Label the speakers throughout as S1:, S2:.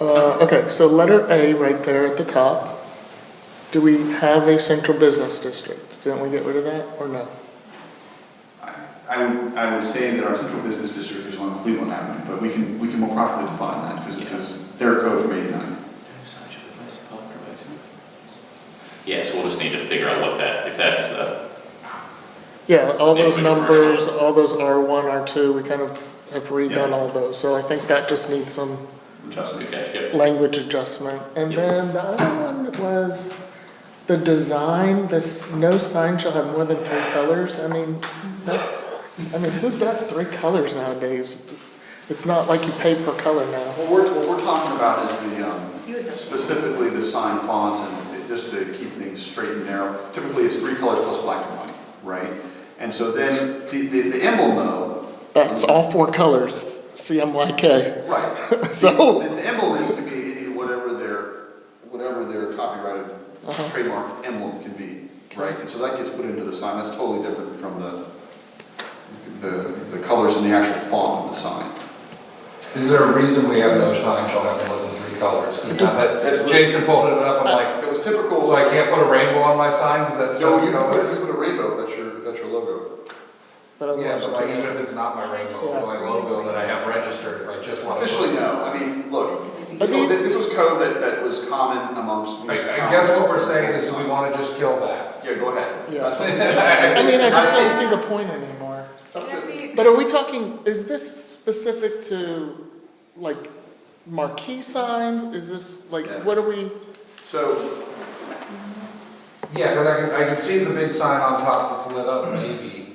S1: Uh, okay, so letter A right there at the top. Do we have a central business district? Didn't we get rid of that or no?
S2: I would, I would say that our central business district is along Cleveland Avenue, but we can, we can more properly define that, because it says their code from eighty-nine.
S3: Yeah, so we'll just need to figure out what that, if that's the,
S1: Yeah, all those
S3: Maybe
S1: numbers,
S3: commercial.
S1: all those R one, R two, we kind of have redone
S2: Yeah.
S1: all those, so I think that just needs some
S2: adjustment.
S3: okay, yep.
S1: language adjustment. And
S3: Yeah.
S1: then the other one was the design, this, no sign shall have more than three colors, I mean, that's, I mean, who does three colors nowadays? It's not like you pay per color now.
S2: What we're, what we're talking about is the, um, specifically the sign fonts and it- just to keep things straight and narrow. Typically, it's three colors plus black and white, right? And so then, the, the the emblem though. um,
S1: That's all four colors, CMYK.
S2: Right.
S1: So-
S2: The the emblem is to be any, whatever their, whatever their copyrighted
S1: Uh-huh.
S2: trademark emblem can be, right? And so that gets put into the sign, that's totally different from the, the, the colors and the actual font of the sign.
S4: Is there a reason we have no sign shall have more than three colors?
S1: It just-
S2: it was-
S4: Jason pulled it up, I'm like,
S2: It was typical.
S4: so I can't put a rainbow on my sign, is that
S2: No, you
S4: seven
S2: can put, you
S4: colors?
S2: can put a rainbow, if that's your, if that's your logo.
S1: But otherwise,
S4: Yeah, but
S1: you
S4: like,
S1: can't.
S4: even if it's not my rainbow,
S1: Yeah.
S4: my logo that I have registered, if I just want to.
S2: Officially, no, I mean, look, you
S1: But
S2: know,
S1: these-
S2: this, this was code that, that was common amongst.
S4: I,
S2: most
S4: I guess what we're
S2: towns.
S4: saying is we want to just kill that.
S2: Yeah, go ahead.
S1: Yeah.
S2: That's what-
S1: I mean, I just don't see the point anymore.
S2: it's up to-
S1: But are we talking, is this specific to, like, marquee signs? Is this, like, what are we?
S2: So,
S4: Yeah, because I can, I can see the big sign on top that's lit up, maybe,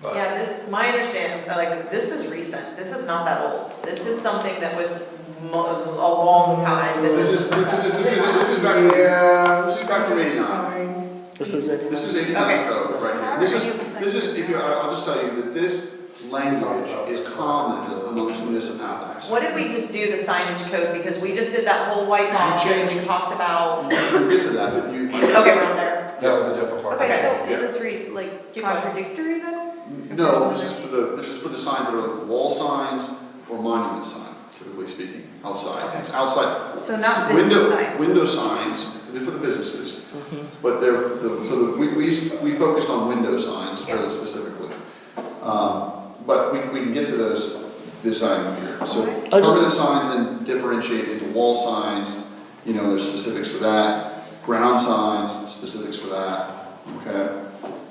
S4: but.
S5: Yeah, this, my understanding, uh, like, this is recent, this is not that old. This is something that was mo- a long time. that
S2: this is, this is, this is, this is back,
S4: Yeah.
S2: this is back from eighty-nine.
S1: This is it.
S2: This is eighty-nine
S5: Okay.
S2: code, right here. This is, this is, if you, I- I'll just tell you that this language is common amongst municipalities.
S5: What did we just do the signage code, because we just did that whole white
S2: You
S5: model and we
S2: changed.
S5: talked about,
S2: We'll get to that, but you.
S5: okay, we're on there.
S4: That was a different part.
S6: Okay,
S2: Yeah. Oh,
S6: so is this read like contradictory then?
S2: No, this is for the, this is for the signs that are like wall signs or monument sign, typically speaking, outside, it's outside.
S6: So not business
S2: Window-
S6: sign.
S2: Window signs, they're for the businesses,
S1: Mm-hmm.
S2: but they're, the, so the, we, we, we focused on window signs fairly specifically. Um, but we, we can get to those, this item here, so
S6: Alright.
S1: I just-
S2: permanent signs then differentiate into wall signs, you know, there's specifics for that, ground signs, specifics for that, okay?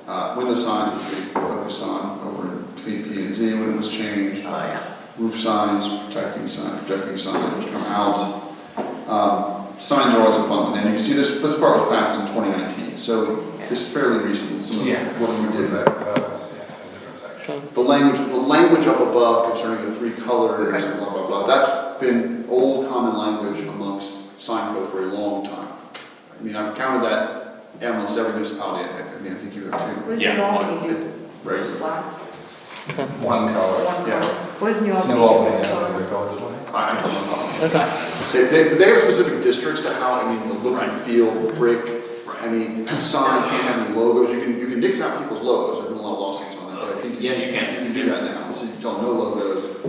S2: Uh, window signs, which we focused on over in P and Z when it was changed,
S5: Oh, yeah.
S2: roof signs, protecting sign, projecting signs, which come out. Um, signs are always a fun, one, and you can see this, this part was passed in twenty nineteen, so it's fairly recent, some
S4: Yeah.
S2: of what we did.
S4: That, that was, yeah, a different section.
S2: The language, the language up above concerning the three colors and blah, blah, blah, that's been old common language amongst sign code for a long time. I mean, I've counted that at almost every municipality, I I mean, I think you have too,
S6: What does
S3: Yeah,
S6: New Albany do?
S2: regularly.
S6: Black?
S4: One color.
S2: Yeah,
S6: What does New Albany?
S4: New
S6: do?
S4: Albany, yeah, we go this way.
S2: I, I don't know. about that.
S1: Okay,
S2: They, they, they have specific districts to how, I mean, the look and
S3: Right.
S2: feel, the brick, I mean, sign, can't have any logos, you can, you can nix out people's logos, there've been a lot of lawsuits on that, but I think.
S3: Yeah, you can.
S2: You can do that now, so you don't know logos,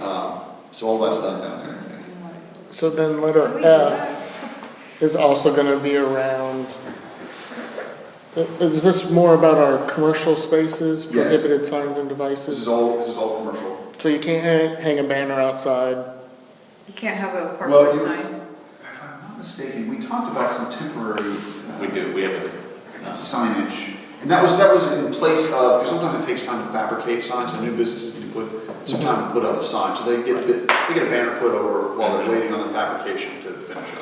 S2: um, so all that's done down there, I think.
S1: so then
S6: Can
S1: letter
S6: we do
S1: F
S6: that?
S1: is also gonna be around. I- Is this more about our commercial spaces,
S2: Yes.
S1: prohibited signs and
S2: This is
S1: devices?
S2: all, this is all commercial.
S1: So you can't hang- hang a banner outside?
S6: You can't have a
S2: Well,
S6: parking
S2: you-
S6: sign.
S2: If I'm not mistaken, we talked about some temporary. uh,
S3: We do, we have a, no.
S2: Signage, and that was, that was in place of, because sometimes it takes time to fabricate signs, and new businesses need to put, some time to put up a sign, so they get, a bit- they get a banner put over while they're waiting on the fabrication to finish up.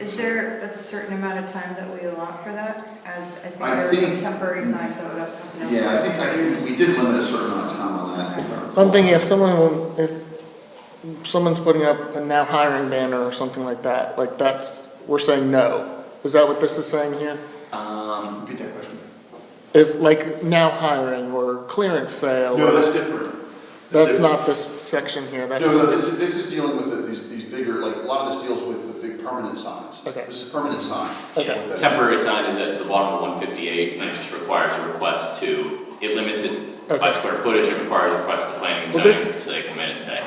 S6: Is there a certain amount of time that we allow for that? As I think
S2: I
S6: there are some
S2: think-
S6: temporary signs that would have. no-
S2: Yeah, I think, I think we did limit a certain amount of time on that. if I recall.
S1: I'm thinking if someone, if someone's putting up a now hiring banner or something like that, like that's, we're saying no. Is that what this is saying here?
S3: Um,
S2: Repeat that question.
S1: If, like, now hiring or clearance sale,
S2: No,
S1: or-
S2: that's different.
S1: that's
S2: different.
S1: not this section here, that's.
S2: No, no, this is, this is dealing with the- these, these bigger, like, a lot of this deals with the big permanent signs.
S1: Okay.
S2: This is permanent sign.
S1: Okay.
S2: What that-
S3: Temporary sign is at the bottom of one fifty-eight, and it just requires a request to, it limits it by
S1: Okay.
S3: square footage, it requires a request to planning and
S1: Well, this-
S3: zoning, so they come in and say.